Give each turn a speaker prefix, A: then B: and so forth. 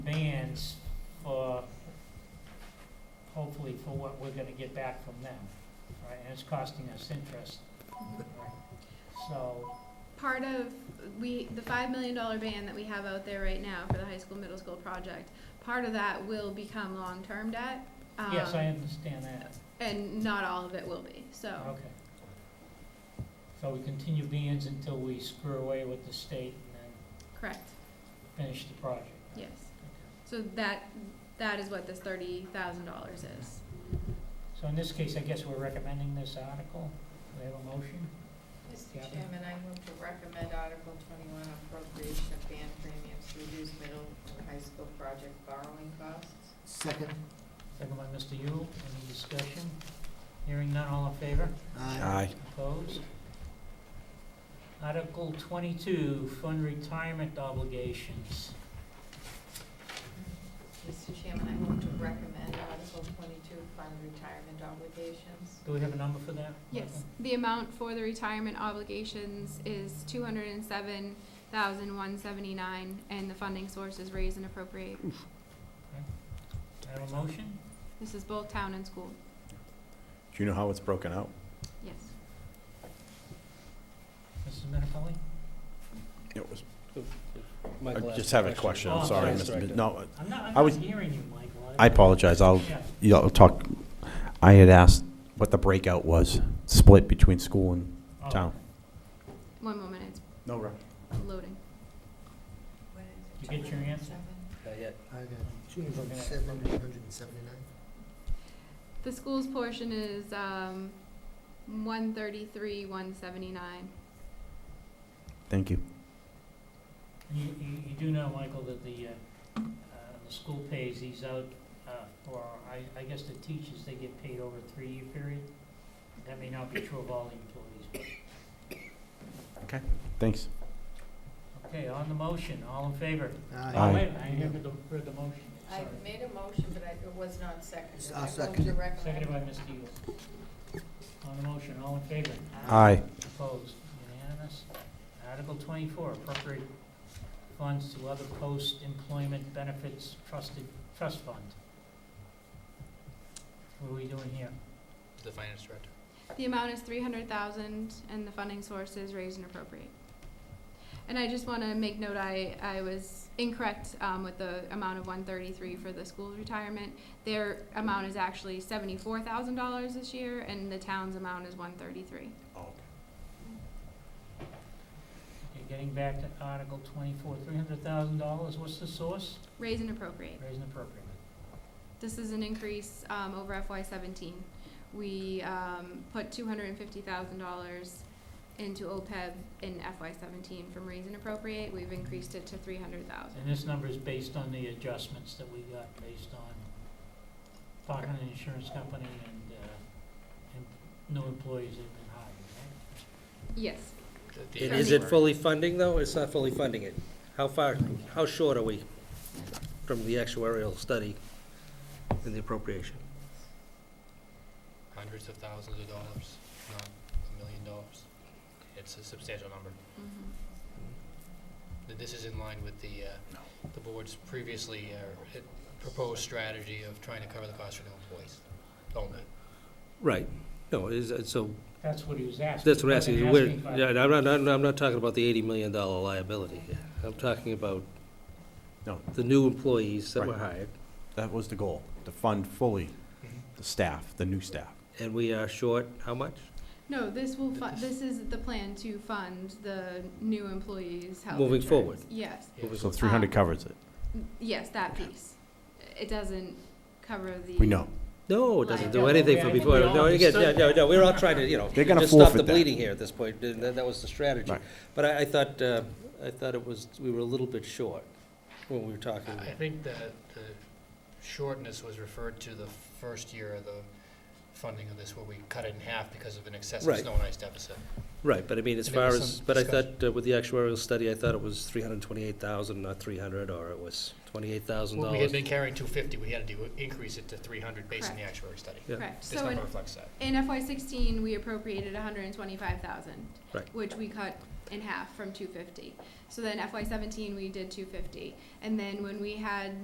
A: bands for, hopefully for what we're gonna get back from them, right? And it's costing us interest, right? So,
B: part of we the five million dollar ban that we have out there right now for the high school middle school project part of that will become long term debt um,
A: yes, I understand that,
B: and not all of it will be so
A: okay. So we continue bands until we screw away with the state and
B: correct
A: then finish the project.
B: yes
A: Okay.
B: so that that is what this thirty thousand dollars is
A: So in this case, I guess we're recommending this article, we have a motion?
C: Mr.
A: Gavin?
C: Chairman, I move to recommend Article twenty-one appropriation of band premiums to reduce middle and high school project borrowing costs.
D: Second,
A: Second by Mr. Yule, any discussion? Hearing none, all in favor?
D: aye.
E: Aye.
A: Opposed? Article twenty-two, fund retirement obligations.
C: Mr. Chairman, I move to recommend Article twenty-two fund retirement obligations.
A: Do we have a number for that?
B: yes the amount for the retirement obligations is two hundred and seven thousand one seventy nine and the funding source is raise and appropriate
A: Do I have a motion?
B: this is both town and school
E: Do you know how it's broken out?
B: yes
A: Mrs. Minipelli?
E: It was, I
F: Michael asked
E: just have a
F: the
E: question,
A: Oh,
E: I'm
A: I'm
E: sorry,
A: sorry.
E: Mr. Mi- no,
A: I'm not, I'm
E: I was-
A: not hearing you, Michael.
E: I apologize, I'll,
A: Yeah,
E: yeah, I'll talk, I had asked what the breakout was, split between school and
A: oh,
E: town.
B: one moment it's
E: No, right.
B: loading
C: What is it?
A: Did you get your answer?
F: Not yet.
D: I got two hundred and seven, one hundred and seventy-nine.
B: The school's portion is um, one thirty-three, one seventy-nine.
E: Thank you.
A: You, you, you do know, Michael, that the, uh, uh, the school pays these out, uh, for, I, I guess the teachers, they get paid over a three-year period. That may not be true of all the employees, but
E: Thanks.
A: Okay, on the motion, all in favor?
E: Aye.
A: Oh, wait, I haven't heard the motion,
C: I
A: sorry.
C: made a motion, but I, it was not seconded.
D: I'll
C: I move to
D: second it.
C: recommend-
A: Seconded by Mr. Yule. On the motion, all in favor?
E: Aye.
A: Opposed? Unanimous? Article twenty-four, appropriate funds to other post-employment benefits trusted, trust fund. What are we doing here?
F: The finance director.
B: The amount is three hundred thousand, and the funding source is raised and appropriate. And I just want to make note, I, I was incorrect um, with the amount of one thirty-three for the school's retirement. Their amount is actually seventy-four thousand dollars this year, and the town's amount is one thirty-three.
E: Oh,
A: Okay, Getting back to Article twenty-four, three hundred thousand dollars, what's the source?
B: Raise and appropriate.
A: Raise and appropriate.
B: This is an increase um, over FY seventeen. We um, put two hundred and fifty thousand dollars into OPEB in FY seventeen from raise and appropriate. We've increased it to three hundred thousand.
A: And this number is based on the adjustments that we got based on talking to the insurance company and, uh, and new employees that have been hired, right?
B: Yes,
F: And
B: Sorry.
F: is it fully funding, though? It's not fully funding it. How far, how short are we from the actuarial study and the appropriation?
G: hundreds of thousands of dollars, not a million dollars. It's a substantial number.
B: Mhm.
G: Th- This is in line with the, uh, the board's previously uh, it- proposed strategy of trying to cover the cost for new employees. Don't it?
F: Right. No, is, it- so,
A: That's what he was asking.
F: that's what I'm
A: He
F: asking. Where,
A: wasn't
F: yeah,
A: asking
F: and I'm not, I'm not- I'm not talking about the eighty million dollar liability here. I'm talking about
E: No.
F: the new employees that were
E: Right.
F: hired,
E: That was the goal, to fund fully the staff, the new staff.
F: and we are short, how much?
B: No, this will fu- this is the plan to fund the new employees' health
F: Moving
B: insurance.
F: forward.
B: Yes,
E: So three hundred covers it.
B: N- yes, that piece. It doesn't cover the.
E: We know.
F: No, it doesn't do
B: Liability.
F: anything
A: Yeah,
F: for
A: I think
F: before,
A: we all
F: no, again, yeah,
A: understood
F: no,
A: that.
F: no, we're all trying to, you know,
E: They're gonna
F: just stop the
E: forfeit that.
F: bleeding here at this point, and that that was the strategy.
E: Right.
F: But I, I thought, uh, I thought it was, we were a little bit short when we were talking.
G: I I think that the shortness was referred to the first year of the funding of this, where we cut it in half because of an excessive
F: Right.
G: snow and ice deficit.
F: Right, but I mean, as
G: There
F: far
G: was
F: as,
G: some
F: but I thought uh, with the actuarial study, I thought it was three hundred and twenty-eight thousand, not three hundred, or it was twenty-eight thousand
G: Well,
F: dollars.
G: We had been carrying two fifty, we had to do, increase it to three hundred based on the
B: Correct.
G: actuary study.
F: Yeah.
B: Correct.
G: This
B: So in
G: number reflects that.
B: In FY sixteen, we appropriated hundred and twenty-five thousand.
F: Right.
B: Which we cut in half from two fifty. So then FY seventeen, we did two fifty. And then when we had